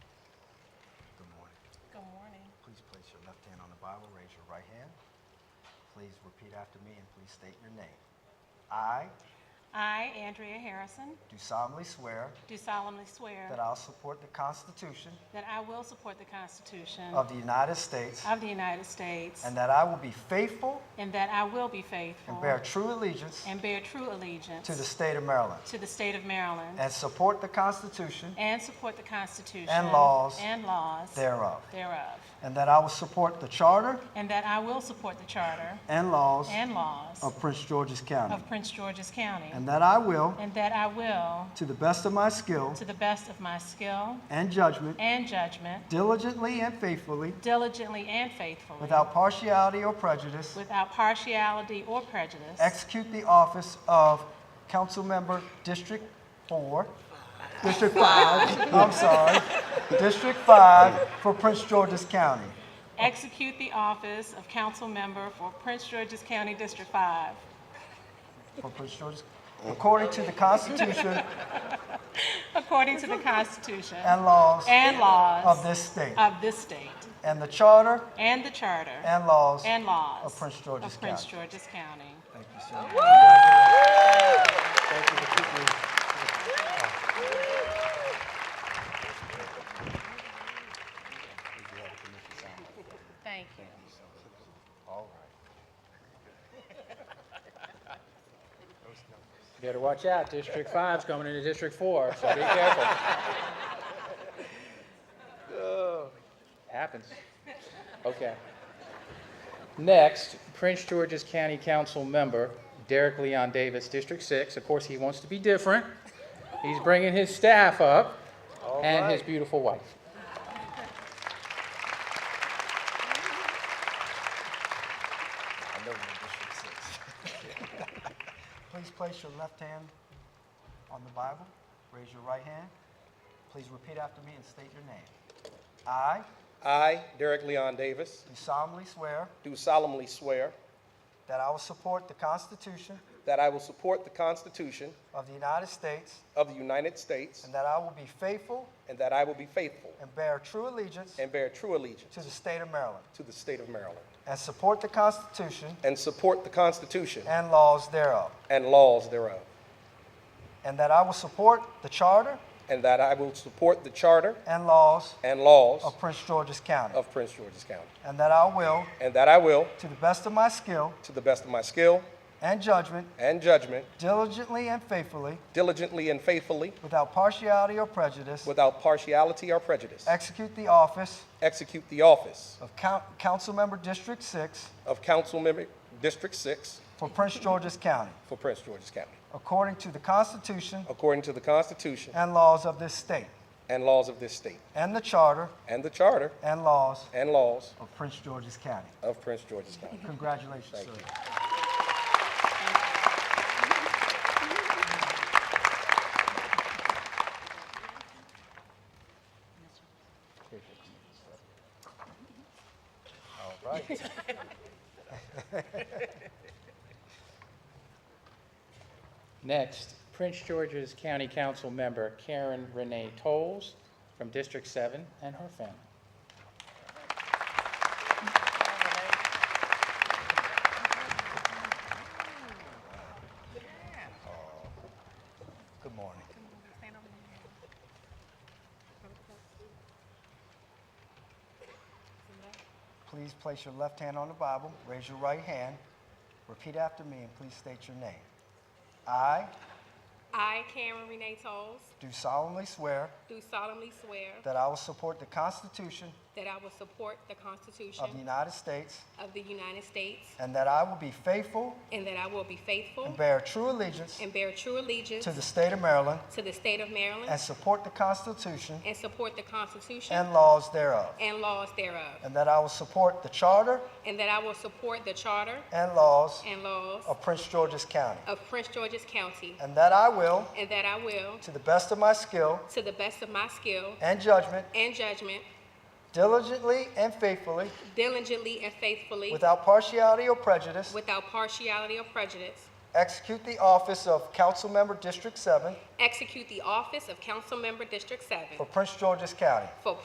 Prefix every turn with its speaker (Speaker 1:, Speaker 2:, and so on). Speaker 1: Good morning.
Speaker 2: Please place your left hand on the Bible, raise your right hand. Please repeat after me and please state your name. I
Speaker 1: I, Andrea Harrison,
Speaker 2: do solemnly swear
Speaker 1: do solemnly swear
Speaker 2: that I'll support the Constitution
Speaker 1: that I will support the Constitution
Speaker 2: of the United States
Speaker 1: of the United States
Speaker 2: and that I will be faithful
Speaker 1: and that I will be
Speaker 2: and
Speaker 1: faithful
Speaker 2: bear true allegiance
Speaker 1: and bear true
Speaker 2: to the
Speaker 1: allegiance
Speaker 2: state of Maryland
Speaker 1: to the state of Maryland
Speaker 2: and support the Constitution
Speaker 1: and support the Constitution
Speaker 2: And laws
Speaker 1: and laws
Speaker 2: thereof,
Speaker 1: thereof,
Speaker 2: and that I will support the Charter
Speaker 1: and that I will support the Charter
Speaker 2: and laws
Speaker 1: and laws
Speaker 2: of Prince George's County,
Speaker 1: of Prince George's County
Speaker 2: and that I will,
Speaker 1: and that I will,
Speaker 2: to the best of my skill
Speaker 1: to the best of my skill
Speaker 2: and judgment,
Speaker 1: and judgment,
Speaker 2: diligently and faithfully,
Speaker 1: diligently and faithfully,
Speaker 2: without partiality or prejudice,
Speaker 1: without partiality or prejudice,
Speaker 2: execute the office of council member District 4, District 5, I'm sorry, District 5 for Prince George's County,
Speaker 1: execute the office of council member for Prince George's County District 5
Speaker 2: for Prince George's, according to the Constitution
Speaker 1: according to the Constitution
Speaker 2: and laws
Speaker 1: and
Speaker 2: of
Speaker 1: laws
Speaker 2: this state,
Speaker 1: of this state
Speaker 2: and the Charter
Speaker 1: and the charter
Speaker 2: and laws.
Speaker 1: and laws
Speaker 2: of Prince George's
Speaker 1: of Prince
Speaker 2: County.
Speaker 1: George's County.
Speaker 2: Thank you so much. Thank you for keeping me.
Speaker 1: Thank you.
Speaker 2: All right.
Speaker 3: You Better watch out, District Five's coming into District Four, so be careful. Happens. Okay. Next, Prince George's County Council Member Derek Leon Davis, District Six. Of course, he wants to be different. He's bringing his staff up and his beautiful wife.
Speaker 2: I know you're District Six. Please place your left hand on the Bible, raise your right hand. Please repeat after me and state your name. I
Speaker 4: I, Derek Leon Davis,
Speaker 2: do solemnly swear
Speaker 4: do solemnly swear
Speaker 2: that I will support the Constitution
Speaker 4: that I will support the Constitution
Speaker 2: of the United States
Speaker 4: of the United States
Speaker 2: and that I will be faithful
Speaker 4: and that I will be faithful
Speaker 2: and bear true allegiance
Speaker 4: and bear true allegiance
Speaker 2: to the state of Maryland
Speaker 4: to the state of Maryland
Speaker 2: and support the Constitution
Speaker 4: and support the Constitution
Speaker 2: and laws thereof,
Speaker 4: and laws thereof
Speaker 2: and that I will support the Charter
Speaker 4: and that I will support the charter
Speaker 2: and laws
Speaker 4: and laws
Speaker 2: of Prince George's County,
Speaker 4: of Prince George's County
Speaker 2: and that I will,
Speaker 4: and that I will
Speaker 2: to the best of my skill
Speaker 4: to the best of my skill
Speaker 2: and judgment,
Speaker 4: and judgment
Speaker 2: diligently and faithfully,
Speaker 4: diligently and faithfully
Speaker 2: without partiality or prejudice,
Speaker 4: without partiality or prejudice
Speaker 2: execute the office
Speaker 4: execute the office
Speaker 2: of Coun- Councilmember District 6
Speaker 4: of Council Member District 6
Speaker 2: for Prince George's County,
Speaker 4: for Prince George's County
Speaker 2: according to the Constitution
Speaker 4: according to the Constitution
Speaker 2: and laws of this state,
Speaker 4: and laws of this state,
Speaker 2: and the Charter
Speaker 4: and the charter
Speaker 2: and laws
Speaker 4: and laws
Speaker 2: of Prince George's County.
Speaker 4: of Prince George's County.
Speaker 2: Congratulations, sir. All right.
Speaker 3: Next, Prince George's County Council Member Karen Renee Tolles from District Seven and her family.
Speaker 2: Good morning. Please place your left hand on the Bible, raise your right hand, repeat after me, and please state your name. I
Speaker 5: I, Cameron Renee Tolles,
Speaker 2: do solemnly swear
Speaker 5: do solemnly swear
Speaker 2: that I will support the Constitution
Speaker 5: that I will support the Constitution
Speaker 2: of the United States
Speaker 5: of the United States
Speaker 2: and that I will be faithful
Speaker 5: and that I will be faithful
Speaker 2: and bear true allegiance
Speaker 5: and bear true allegiance
Speaker 2: to the state of Maryland
Speaker 5: to the state of Maryland
Speaker 2: and support the Constitution
Speaker 5: and support the Constitution
Speaker 2: and laws thereof,
Speaker 5: and laws thereof,
Speaker 2: and that I will support the Charter
Speaker 5: and that I will support the charter
Speaker 2: and laws
Speaker 5: and laws
Speaker 2: of Prince George's County,
Speaker 5: of Prince George's County,
Speaker 2: and that I will,
Speaker 5: and that I will,
Speaker 2: to the best of my skill
Speaker 5: to the best of my skill
Speaker 2: and judgment,
Speaker 5: and judgment,
Speaker 2: diligently and faithfully,
Speaker 5: diligently and faithfully,
Speaker 2: without partiality or prejudice,
Speaker 5: without partiality or prejudice,
Speaker 2: execute the office of Councilmember District 7
Speaker 5: execute the office of Council Member District 7
Speaker 2: for Prince George's County.
Speaker 5: for